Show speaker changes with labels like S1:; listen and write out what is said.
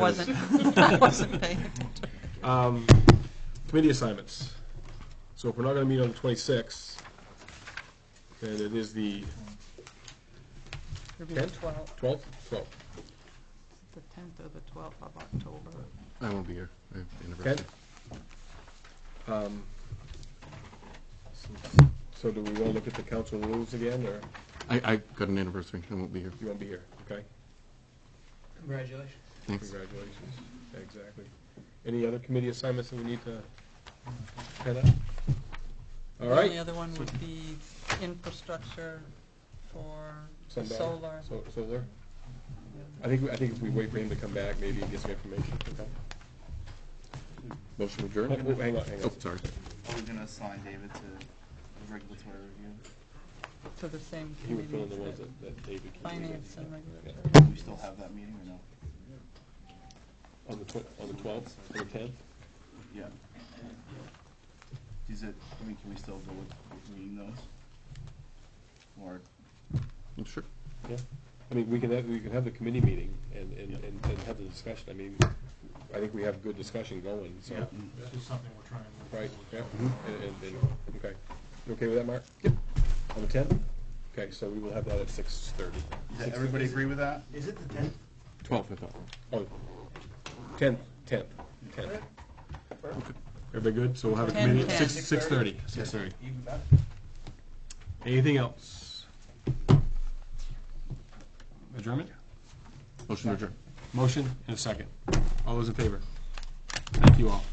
S1: wasn't, I wasn't paying. attention.
S2: Um, committee assignments. So if we're not gonna meet on the twenty-sixth, then it is the
S1: It'll be the
S2: tenth,
S1: twelfth,
S2: twelfth, twelfth,
S1: the tenth or the twelfth of October.
S3: I won't be here. I have
S2: okay?
S3: anniversary.
S2: Um, So do we wanna look at the council rules again, or
S3: I, I got an anniversary. I won't be here.
S2: you wanna be here, okay?
S4: Congratulations.
S3: Thanks.
S2: Congratulations, exactly. Any other committee assignments that we need to head up? All
S1: The
S2: right.
S1: only other one would be infrastructure for the
S2: Sundial.
S1: solar.
S2: So- Solar? I think, I think if we wait for him to come back, maybe he gets some information, okay?
S3: Motion
S2: Oh,
S3: adjourned?
S2: oh, Hang on, hang on.
S3: Oh, sorry.
S5: Are we gonna assign David to the regulatory review?
S1: To the same
S2: He would fill in the
S1: committees
S2: ones
S1: that
S2: that, that David can.
S1: finance and regulatory.
S5: Do we still have that meeting or no?
S2: On the tw- on the twelfth, on the tenth?
S5: Yeah. Is it, I mean, can we still go with, with meeting those? Or,
S3: Mm, Sure.
S2: Yeah. I mean, we can have, we can have the committee meeting and, and,
S5: Yeah.
S2: and and have the discussion. I mean, I think we have good discussion going, so.
S6: Yeah, this is something we're trying to.
S2: Right, yeah, and, and, and, okay. You okay with that, Mark? Yep. On the tenth? Okay, so we will have that at six thirty.
S5: does everybody agree with that?
S6: Is it the tenth?
S3: Twelve, I thought.
S2: Oh, tenth, tenth, tenth. Everybody good? So we'll have a
S1: Ten,
S2: committee at
S1: ten.
S2: six, six thirty, six thirty.
S5: Even better.
S2: Anything else? Adjournment?
S3: Motion adjourned.
S2: Motion and a second. All those in favor? Thank you all.